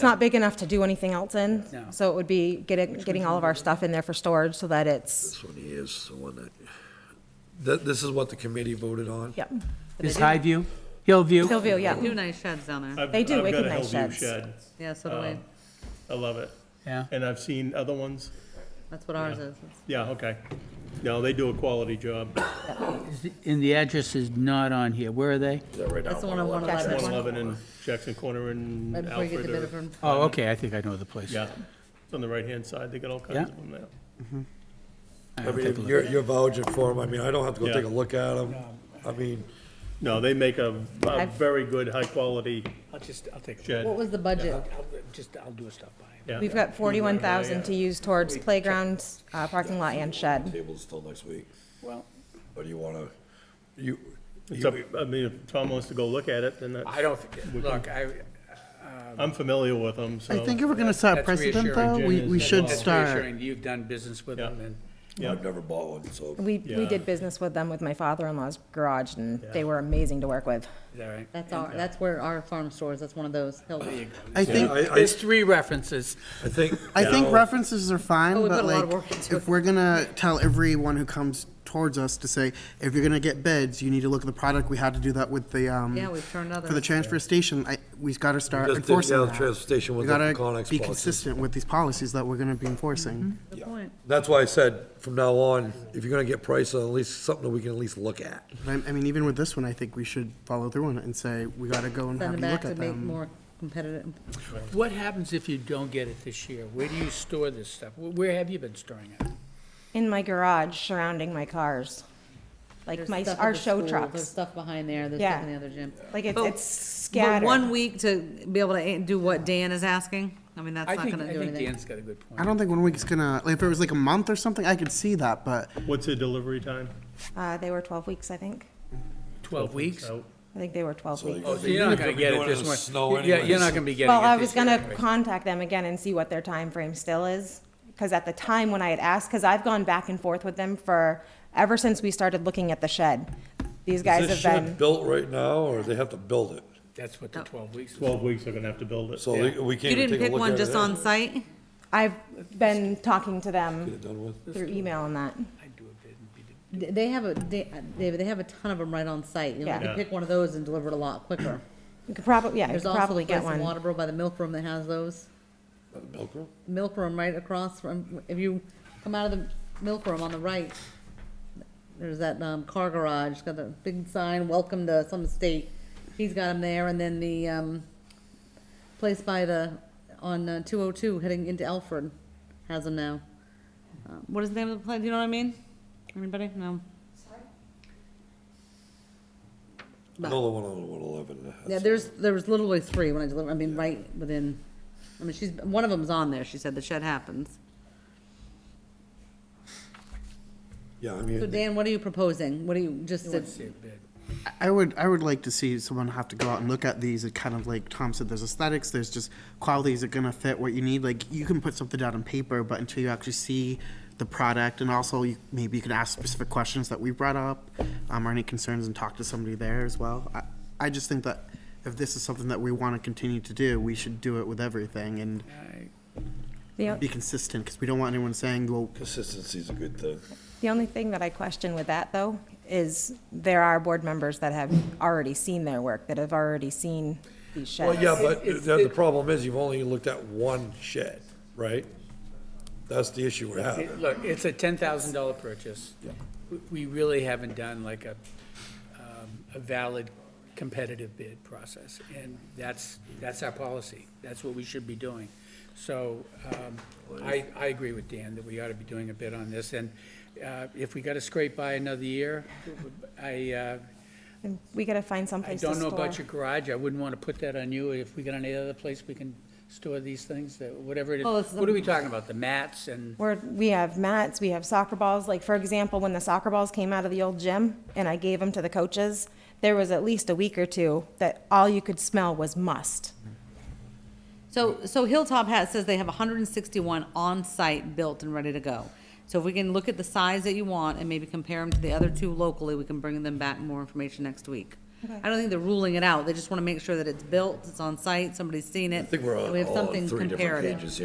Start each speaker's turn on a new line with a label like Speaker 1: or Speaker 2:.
Speaker 1: It's not big enough to do anything else in,
Speaker 2: No.
Speaker 1: so it would be getting, getting all of our stuff in there for storage so that it's,
Speaker 3: This one is the one that, that, this is what the committee voted on?
Speaker 1: yep.
Speaker 2: Is Highview, Hillview,
Speaker 1: Hillview, yeah.
Speaker 4: Two nice sheds down there.
Speaker 5: I've-
Speaker 1: They do,
Speaker 5: I've
Speaker 1: wicked
Speaker 5: got a
Speaker 1: nice
Speaker 5: Hillview
Speaker 1: sheds.
Speaker 5: shed.
Speaker 4: Yeah, so do we.
Speaker 5: Um, I love it.
Speaker 2: yeah.
Speaker 5: And I've seen other ones.
Speaker 4: That's what ours is.
Speaker 5: Yeah, okay. No, they do a quality job.
Speaker 2: And the address is not on here, where are they?
Speaker 3: Is that right
Speaker 4: That's the
Speaker 3: now?
Speaker 4: one on one eleven.
Speaker 5: One eleven in Jackson Corner and
Speaker 4: Right before you get
Speaker 5: Alfred
Speaker 4: to
Speaker 5: or,
Speaker 4: Bitterford.
Speaker 2: Oh, okay, I think I know the place.
Speaker 5: yeah. It's on the right-hand side. They got all
Speaker 2: Yeah.
Speaker 5: kinds of them there.
Speaker 2: All
Speaker 3: I
Speaker 2: right, take a
Speaker 3: mean,
Speaker 2: look.
Speaker 3: you're, you're vouching for them, I mean, I don't have to go
Speaker 5: Yeah.
Speaker 3: take a look at them, I mean,
Speaker 5: No, they make a, a
Speaker 1: I've-
Speaker 5: very good, high-quality
Speaker 6: I'll just, I'll take, a
Speaker 4: What
Speaker 5: shed.
Speaker 4: was the budget?
Speaker 6: I'll just, I'll do a stop by.
Speaker 5: Yeah.
Speaker 1: We've got forty-one thousand to use towards playground, uh, parking lot and shed.
Speaker 3: table's till next week,
Speaker 6: Well,
Speaker 3: or do you wanna, you,
Speaker 5: It's up, I mean, if Tom wants to go look at it, then that's,
Speaker 6: I don't, think- look, I, uh,
Speaker 2: Uh,
Speaker 5: I'm familiar with them,
Speaker 7: I
Speaker 5: so.
Speaker 7: think if we're gonna set a
Speaker 6: That's
Speaker 7: precedent,
Speaker 6: reassuring,
Speaker 7: though,
Speaker 5: Jim,
Speaker 7: we,
Speaker 5: is
Speaker 7: we
Speaker 5: that-
Speaker 7: should
Speaker 6: that's
Speaker 7: start.
Speaker 6: reassuring, you've done business with them, and
Speaker 3: I've never bought one, so.
Speaker 1: We, we did business with them with my father-in-law's garage and they were amazing to work with.
Speaker 6: is that right?
Speaker 4: That's our, that's where our farm stores, that's one of those. Hill-
Speaker 7: I
Speaker 3: Yeah,
Speaker 7: think,
Speaker 3: I, I,
Speaker 6: There's three references.
Speaker 3: I think.
Speaker 7: I
Speaker 3: you know,
Speaker 7: think references are
Speaker 4: Oh,
Speaker 7: fine,
Speaker 4: we put
Speaker 7: but
Speaker 4: a lot of
Speaker 7: like,
Speaker 4: work into it.
Speaker 7: if we're gonna tell everyone who comes towards us to say, if you're gonna get bids, you need to look at the product, we had to do that with the, um,
Speaker 4: Yeah, we've turned others.
Speaker 7: for the transfer station, I, we've gotta start
Speaker 3: Just did
Speaker 7: enforcing
Speaker 3: the
Speaker 7: that.
Speaker 3: transfer station
Speaker 7: We
Speaker 3: with the
Speaker 7: gotta
Speaker 3: Conex
Speaker 7: be
Speaker 3: policies.
Speaker 7: consistent with these policies that we're gonna be enforcing.
Speaker 4: Good point.
Speaker 3: That's why I said, from now on, if you're gonna get price, at least something that we can at least look at.
Speaker 4: Mm-hmm.
Speaker 7: But I, I mean, even with this one, I think we should follow through on it and say, we gotta go and
Speaker 4: Send
Speaker 7: have
Speaker 4: them
Speaker 7: a
Speaker 4: back
Speaker 7: look
Speaker 4: to
Speaker 7: at
Speaker 4: make
Speaker 7: them.
Speaker 4: more competitive.
Speaker 6: What happens if you don't get it this year? Where do you store this stuff? Wh- Where have you been storing it?
Speaker 1: In my garage surrounding my cars, like
Speaker 4: There's
Speaker 1: my,
Speaker 4: stuff at
Speaker 1: our
Speaker 4: the
Speaker 1: show
Speaker 4: school, There's
Speaker 1: trucks.
Speaker 4: stuff behind there, there's stuff in the
Speaker 1: Yeah.
Speaker 4: other gym.
Speaker 1: Like it-
Speaker 4: But-
Speaker 1: it's
Speaker 4: But one
Speaker 1: scattered.
Speaker 4: week to be able to a- do what Dan is asking, I mean, that's
Speaker 6: I
Speaker 4: not
Speaker 6: think,
Speaker 4: gonna
Speaker 6: I
Speaker 4: do
Speaker 6: think
Speaker 4: anything.
Speaker 6: Dan's got a good point.
Speaker 7: I don't think one week's gonna, like, if it was like a month or something, I could see that, but
Speaker 5: What's the delivery time?
Speaker 1: Uh, they were twelve weeks, I think.
Speaker 6: Twelve weeks?
Speaker 5: Out.
Speaker 1: I think they were twelve weeks.
Speaker 6: So you're not gonna get it
Speaker 3: doing it in
Speaker 6: this
Speaker 3: the
Speaker 6: one.
Speaker 3: snow
Speaker 6: Yeah, You're not
Speaker 3: anyways.
Speaker 6: gonna be getting it this year.
Speaker 1: Well, I was gonna
Speaker 6: anyway.
Speaker 1: contact them again and see what their time frame still is, because at the time when I had asked, because I've gone back and forth with them for, ever since we started looking at the shed. These guys
Speaker 3: Is this
Speaker 1: have
Speaker 3: shed
Speaker 1: been,
Speaker 3: built right now, or they have to build it?
Speaker 6: That's what the twelve weeks is.
Speaker 5: Twelve weeks, they're gonna have to build it.
Speaker 3: So they- we can't even
Speaker 4: You didn't
Speaker 3: take a
Speaker 4: pick
Speaker 3: look at
Speaker 4: one
Speaker 3: it.
Speaker 4: just on
Speaker 3: now?
Speaker 4: site?
Speaker 1: I've been talking to them
Speaker 3: Done with?
Speaker 1: through email and that.
Speaker 6: I'd do a bid and be the-
Speaker 4: Th- They have a, they- uh, David, they have a ton of them right on site. You know, you
Speaker 1: Yeah.
Speaker 4: can pick one of those and deliver it a lot quicker.
Speaker 1: You could probably, yeah, you
Speaker 4: There's
Speaker 1: could
Speaker 4: also a
Speaker 1: probably
Speaker 4: place
Speaker 1: get
Speaker 4: in
Speaker 1: one.
Speaker 4: Waterboro by the milk room that has those.
Speaker 3: Milk room?
Speaker 4: Milk room right across from, if you come out of the milk room on the right, there's that, um, car garage, it's got the big sign, welcome to some state. He's got them there, and then the, um, place by the, on, uh, two oh two heading into Alfred has them now. Uh, What is the name of the place, do you know what I mean? Anybody? No?
Speaker 3: Another one on one eleven.
Speaker 4: Yeah, there's, there was literally three when I delivered, I mean, right within, I mean, she's, one of them's on there, she said, the shed happens.
Speaker 3: Yeah, I
Speaker 4: So
Speaker 3: mean,
Speaker 4: Dan, what are you proposing? What are you, just,
Speaker 6: I
Speaker 4: to-
Speaker 6: would say a bid.
Speaker 7: I would I would like to see someone have to go out and look at these and kind of like Tom said, there's aesthetics, there's just qualities that gonna fit what you need. Like you can put something out on paper, but until you actually see the product and also you, maybe you can ask specific questions that we brought up, um, or any concerns and talk to somebody there as well. I, I just think that if this is something that we want to continue to do, we should do it with everything and
Speaker 1: The,
Speaker 7: be consistent because we don't want anyone saying, well,
Speaker 3: consistency's a good thing.
Speaker 1: the only thing that I question with that, though, is there are board members that have already seen their work, that have already seen these
Speaker 3: Well,
Speaker 1: sheds.
Speaker 3: yeah, but the, the problem is you've only looked at one shed, right? That's the issue we're
Speaker 6: It-
Speaker 3: having.
Speaker 6: Look, it's a ten thousand dollar purchase. We- We really haven't done like a, um, a valid competitive bid process, and that's, that's our policy. That's what we should be doing. So, um, I, I agree with Dan that we ought to be doing a bid on this, and, uh, if we gotta scrape by another year, I, uh,
Speaker 1: We gotta find
Speaker 6: I
Speaker 1: someplace to
Speaker 6: don't know
Speaker 1: store.
Speaker 6: about your garage, I wouldn't wanna put that on you. If we got any other place we can store these things, that, whatever it
Speaker 4: Oh, it's
Speaker 6: is.
Speaker 4: the-
Speaker 6: What are we talking about? The mats and?
Speaker 1: Where we have mats, we have soccer balls. Like, for example, when the soccer balls came out of the old gym and I gave them to the coaches, there was at least a week or two that all you could smell was must.
Speaker 4: so, so Hilltop has, says they have hundred and sixty-one on-site built and ready to go. So if we can look at the size that you want and maybe compare them to the other two locally, we can bring them back more information next week. I don't think they're ruling it out, they just wanna make sure that it's built, it's on site, somebody's seen
Speaker 3: I
Speaker 4: it.
Speaker 3: think we're
Speaker 4: and
Speaker 3: on
Speaker 4: we have
Speaker 3: all
Speaker 4: something
Speaker 3: three different
Speaker 4: comparative.
Speaker 3: pages here.